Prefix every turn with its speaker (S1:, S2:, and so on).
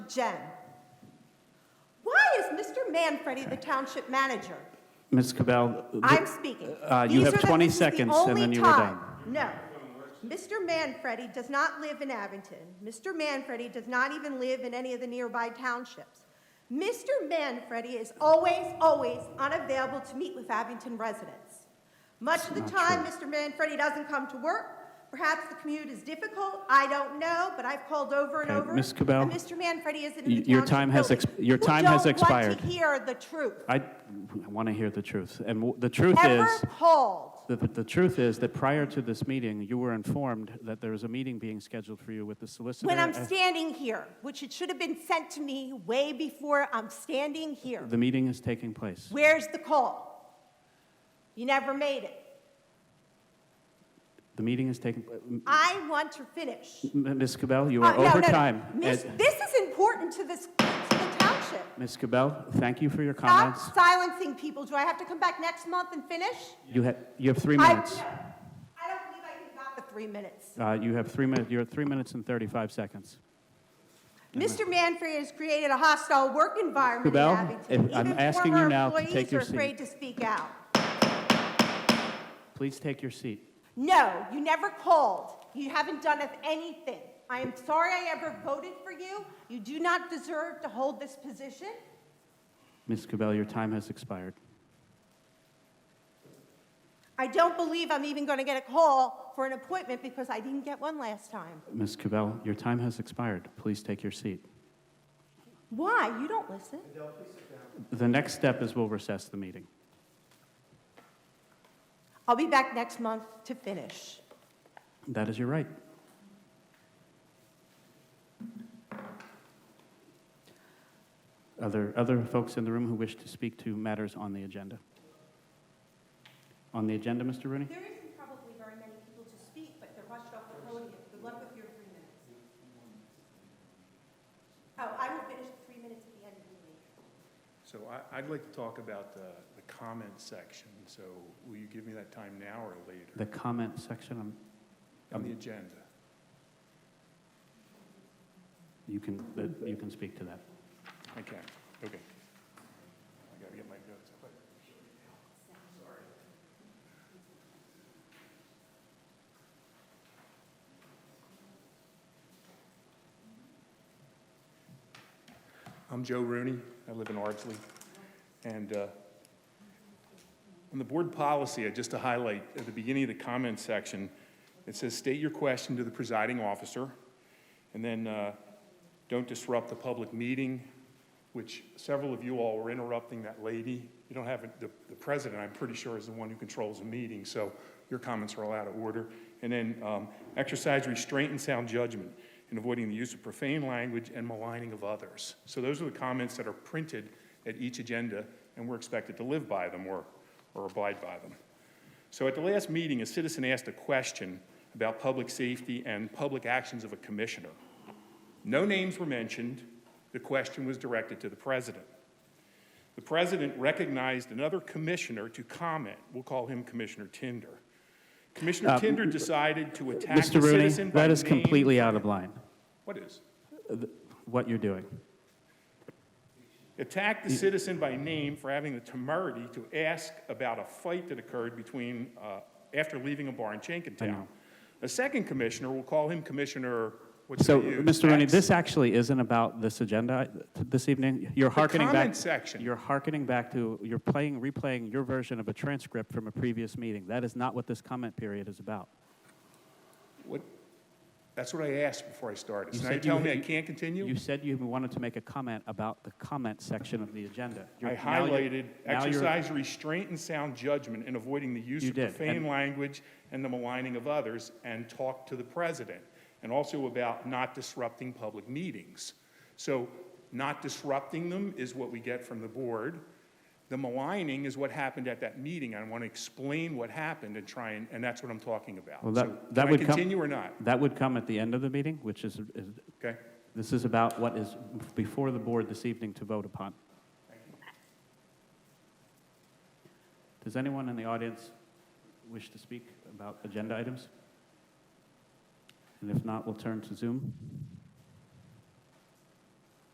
S1: Jen. Why is Mr. Manfredi the township manager?
S2: Ms. Cabell, th-
S1: I'm speaking.
S2: Uh, you
S1: These
S2: have
S1: are the-
S2: 20
S1: this is the
S2: seconds, and
S1: only
S2: then you were
S1: time.
S2: done.
S1: No. Mr. Manfredi does not live in Abington. Mr. Manfredi does not even live in any of the nearby townships. Mr. Manfredi is always, always unavailable to meet with Abington residents. Much of the time, Mr. Manfredi doesn't come to work. Perhaps the commute is difficult, I don't know, but I've called over and
S2: Okay,
S1: over.
S2: Ms. Cabell,
S1: and Mr. Manfredi isn't in the
S2: y- your
S1: township
S2: time has
S1: building.
S2: exp- your time has
S1: We
S2: expired.
S1: don't want to hear the truth.
S2: I want to hear the truth. And w- the truth
S1: Ever
S2: is,
S1: called.
S2: the- the the truth is that prior to this meeting, you were informed that there was a meeting being scheduled for you with the solicitor.
S1: When I'm
S2: at-
S1: standing here, which it should have been sent to me way before I'm standing here.
S2: The meeting is taking place.
S1: Where's the call? You never made it.
S2: The meeting is taking, m-
S1: I want to finish.
S2: m- Ms. Cabell, you
S1: Uh,
S2: are
S1: no, no,
S2: over
S1: no.
S2: time.
S1: Miss-
S2: And-
S1: This is important to this, to the township.
S2: Ms. Cabell, thank you for your
S1: Stop
S2: comments.
S1: silencing people. Do I have to come back next month and finish?
S2: You have, you have three
S1: I-
S2: minutes.
S1: no. I don't believe I can got the three minutes.
S2: Uh, You have three minutes, you're at three minutes and 35 seconds.
S1: Mr. Manfrey has created a hostile work environment in
S2: Cabell,
S1: Abington.
S2: if- I'm
S1: Even
S2: asking
S1: former
S2: you now to
S1: employees
S2: take your
S1: are
S2: seat.
S1: afraid to speak out.
S2: Please take your seat.
S1: No, you never called. You haven't done us anything. I am sorry I ever voted for you. You do not deserve to hold this position.
S2: Ms. Cabell, your time has expired.
S1: I don't believe I'm even going to get a call for an appointment because I didn't get one last time.
S2: Ms. Cabell, your time has expired. Please take your seat.
S1: Why? You don't listen.
S2: The next step is we'll recess the meeting.
S1: I'll be back next month to finish.
S2: That is your right. Other, other folks in the room who wish to speak to matters on the agenda? On the agenda, Mr. Rooney?
S1: There isn't probably very many people to speak, but they're rushed off the podium. Good luck with your three minutes. Oh, I will finish the three minutes at the end of the meeting.
S3: So I, I'd like to talk about the, the comment section, so will you give me that time now or
S2: The
S3: later?
S2: comment section, um,
S3: On the
S2: um,
S3: agenda.
S2: you can, uh, you can speak to that.
S3: I can, okay. I gotta get my notes up. I'm Joe Rooney. I live in Ardsley. And uh, on the board policy, uh, just to highlight, at the beginning of the comment section, it says, "State your question to the presiding officer." And then, uh, "Don't disrupt the public meeting," which several of you all were interrupting that lady. You don't have, a- the the president, I'm pretty sure, is the one who controls the meeting, so your comments are all out of order. And then, um, "Exercise restraint and sound judgment in avoiding the use of profane language and maligning of others." So those are the comments that are printed at each agenda, and we're expected to live by them or or abide by them. So at the last meeting, a citizen asked a question about public safety and public actions of a commissioner. No names were mentioned. The question was directed to the president. The president recognized another commissioner to comment. We'll call him Commissioner Tinder. Commissioner
S2: Uh,
S3: Tinder decided to attack the
S2: Mr. Rooney,
S3: citizen by
S2: that is
S3: name.
S2: completely out of line,
S3: What is?
S2: what you're doing.
S3: attacked the citizen by name for having the temerity to ask about a fight that occurred between, uh, after leaving a bar in Jenkintown. A second commissioner, we'll call him Commissioner, what
S2: So,
S3: should we use?
S2: Mr. Rooney,
S3: X.
S2: this actually isn't about this agenda uh, this evening. You're hearkening back.
S3: comment section.
S2: You're hearkening back to, you're playing, replaying your version of a transcript from a previous meeting. That is not what this comment period is about.
S3: What, that's what I asked before I started.
S2: You
S3: So now
S2: said
S3: you're telling
S2: you-
S3: me I can't continue?
S2: You said you wanted to make a comment about the comment section of the agenda. You're-
S3: I
S2: now you're-
S3: highlighted
S2: now you're-
S3: exercise restraint and sound judgment in avoiding the use
S2: You
S3: of
S2: did,
S3: profane
S2: and-
S3: language and the maligning of others, and talk to the president, and also about not disrupting public meetings. So not disrupting them is what we get from the board. The maligning is what happened at that meeting. I want to explain what happened and try and, and that's what I'm talking about.
S2: Well,
S3: So
S2: that, that would
S3: Can
S2: come.
S3: I continue or not?
S2: That would come at the end of the meeting, which is, is-
S3: Okay?
S2: this is about what is before the board this evening to vote upon. Does anyone in the audience wish to speak about agenda items? And if not, we'll turn to Zoom.